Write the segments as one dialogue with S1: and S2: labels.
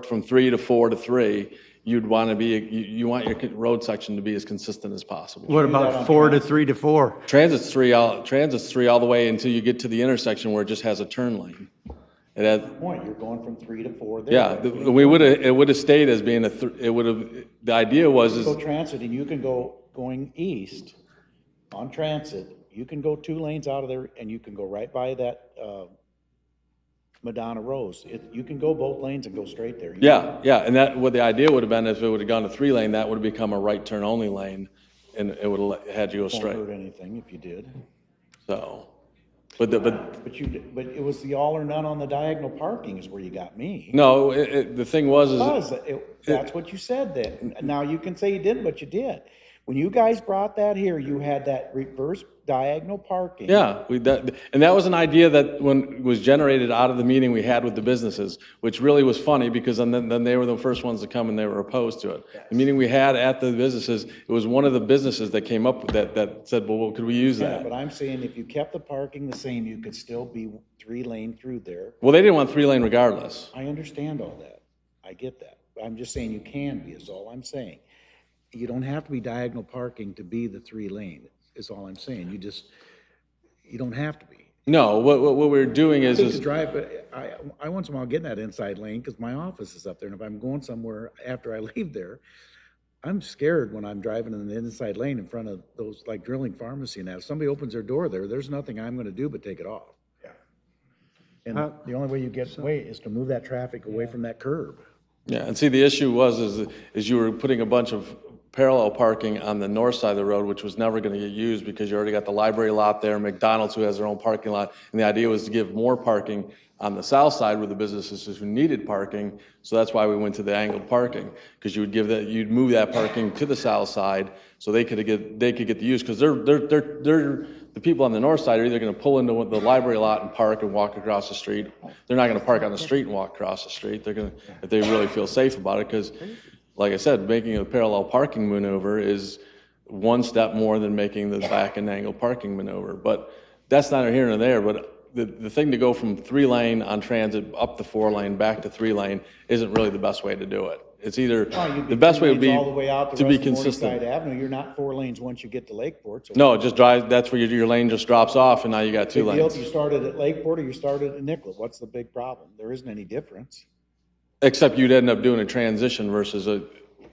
S1: from three to four to three, you'd want to be, you, you want your road section to be as consistent as possible.
S2: What about four to three to four?
S1: Transit's three, all transit's three all the way until you get to the intersection where it just has a turn lane. It has,
S3: Point, you're going from three to four there.
S1: yeah, the- we would have, it would have stayed as being a, thr- it would have, the idea was
S3: Go
S1: is,
S3: transit and you can go, going east on transit, you can go two lanes out of there and you can go right by that, uh, Madonna Rose. It, you can go both lanes and go straight there. You-
S1: yeah, yeah, and that, what the idea would have been if it would have gone to three lane, that would have become a right turn only lane, and it would have had you go
S3: Won't
S1: straight,
S3: hurt anything if you did.
S1: so. But the, but
S3: But you, d- but it was the all or none on the diagonal parking is where you got me.
S1: No, it, it, the thing was, is
S3: Because it, that's what you said then. Now you can say you didn't, but you did. When you guys brought that here, you had that reverse diagonal parking.
S1: yeah, we that, and that was an idea that when was generated out of the meeting we had with the businesses, which really was funny because then then they were the first ones to come and they were opposed to it. The meeting we had at the businesses, it was one of the businesses that came up with that that said, well, well, could we use
S3: Yeah,
S1: that?
S3: But I'm saying if you kept the parking the same, you could still be three lane through there.
S1: Well, they didn't want three lane regardless.
S3: I understand all that. I get that. But I'm just saying you can be, is all I'm saying. You don't have to be diagonal parking to be the three lane, is all I'm saying. You just, you don't have to be.
S1: No, what what, what we were doing is
S3: hate to
S1: is
S3: drive, but I, I once in a while get in that inside lane because my office is up there. And if I'm going somewhere after I leave there, I'm scared when I'm driving in the inside lane in front of those, like drilling pharmacy and that. If somebody opens their door there, there's nothing I'm going to do but take it off. Yeah. And the only way you get away is to move that traffic away from that curb.
S1: Yeah, and see, the issue was, is, is you were putting a bunch of parallel parking on the north side of the road, which was never gonna get used because you already got the library lot there, McDonald's who has their own parking lot. And the idea was to give more parking on the south side where the businesses who needed parking. So that's why we went to the angled parking, because you would give that, you'd move that parking to the south side so they could get, they could get the use, because they're, they're, they're, they're, the people on the north side are either gonna pull into the library lot and park and walk across the street. They're not gonna park on the street and walk across the street. They're gonna, if they really feel safe about it, because, like I said, making a parallel parking maneuver is one step more than making the back and angle parking maneuver. But that's not here nor there, but the, the thing to go from three lane on transit up to four lane, back to three lane, isn't really the best way to do it. It's either,
S3: Well, you'd
S1: the best
S3: three
S1: way would be
S3: lanes All the way out the
S1: to be
S3: rest of Morningside
S1: consistent.
S3: Avenue. You're not four lanes once you get to Lakeport. So
S1: No, just drive, that's where your, your lane just drops off and now you got two
S3: Deal if
S1: lanes.
S3: you started at Lakeport or you started at Nicollet. What's the big problem? There isn't any difference.
S1: Except you'd end up doing a transition versus a,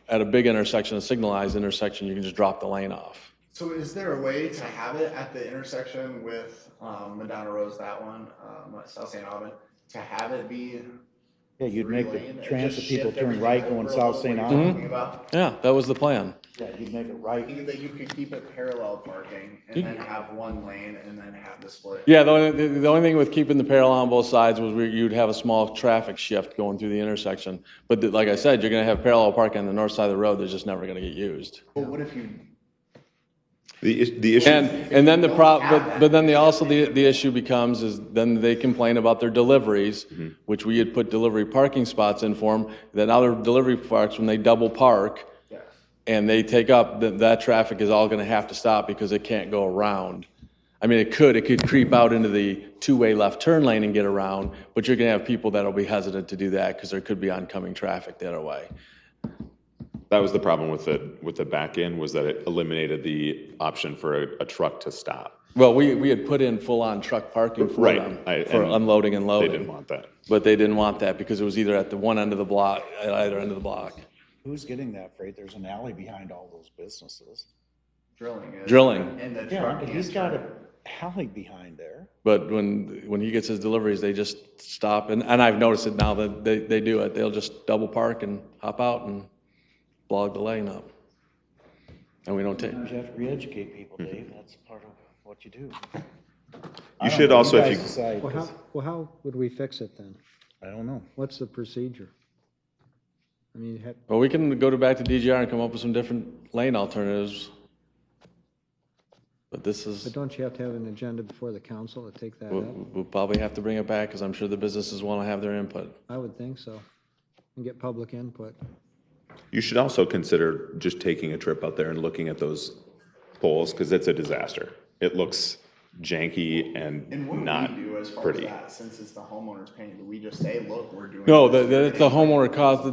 S1: at a big intersection, a signalized intersection, you can just drop the lane off.
S4: So is there a way to have it at the intersection with um, Madonna Rose, that one, um, South St. Auburn, to have it be
S3: Yeah, you'd
S4: three
S3: make
S4: lane
S3: the
S4: and
S3: transit
S4: just
S3: people
S4: shift
S3: turn
S4: everything
S3: right
S4: over
S3: going
S4: a
S3: south St.
S4: little where you're
S3: Albans.
S4: talking about?
S1: Yeah, that was the plan.
S5: Mm-hmm.
S3: Yeah, you'd make it
S4: I
S3: right.
S4: think That you could keep it parallel parking and then have one lane and then have the split.
S1: Yeah, the only, the- the only thing with keeping the parallel on both sides was where you'd have a small traffic shift going through the intersection. But th- like I said, you're gonna have parallel parking on the north side of the road that's just never gonna get used.
S4: But what if you?
S5: The, is- the issue.
S1: And, and then the prob, but, but then the, also the, the issue becomes is then they complain about their deliveries, which we had put delivery parking spots in for them, then now their delivery parks, when they double park
S4: Yes.
S1: and they take up, that, that traffic is all gonna have to stop because it can't go around. I mean, it could, it could creep out into the two-way left turn lane and get around, but you're gonna have people that'll be hesitant to do that because there could be oncoming traffic the other way.
S5: That was the problem with the, with the back end was that it eliminated the option for a, a truck to stop.
S1: Well, we, we had put in full-on truck parking for
S5: Right,
S1: them,
S5: I-
S1: for
S5: and
S1: unloading and
S5: They
S1: loading.
S5: didn't want that.
S1: But they didn't want that because it was either at the one end of the block, at either end of the block.
S3: Who's getting that freight? There's an alley behind all those businesses.
S4: Drilling is.
S1: Drilling.
S4: And the
S3: Yeah,
S4: truck.
S3: but he's got an alley behind there.
S1: But when, when he gets his deliveries, they just stop. And, and I've noticed it now that they, they do it. They'll just double park and hop out and block the lane up. And we don't take,
S3: You have to re-educate people,
S5: Mm-hmm.
S3: Dave. That's part of what you do.
S5: You should also, if
S3: guys
S5: you,
S3: decide,
S6: Well, how,
S3: 'cause
S6: well, how would we fix it then?
S3: I don't know.
S6: What's the procedure? I mean, you have,
S1: well, we can go to back to DGR and come up with some different lane alternatives. But this
S6: but
S1: is,
S6: don't you have to have an agenda before the council to take that
S1: we'll,
S6: up?
S1: we'll probably have to bring it back because I'm sure the businesses want to have their input.
S6: I would think so. And get public input.
S5: you should also consider just taking a trip out there and looking at those poles, because it's a disaster. It looks janky
S4: And what
S5: and not
S4: do we do as far as
S5: pretty.
S4: that, since it's the homeowner's paying? Do we just say, look, we're doing?
S1: No,
S4: this,
S1: the, the
S4: we're
S1: the homeowner caused,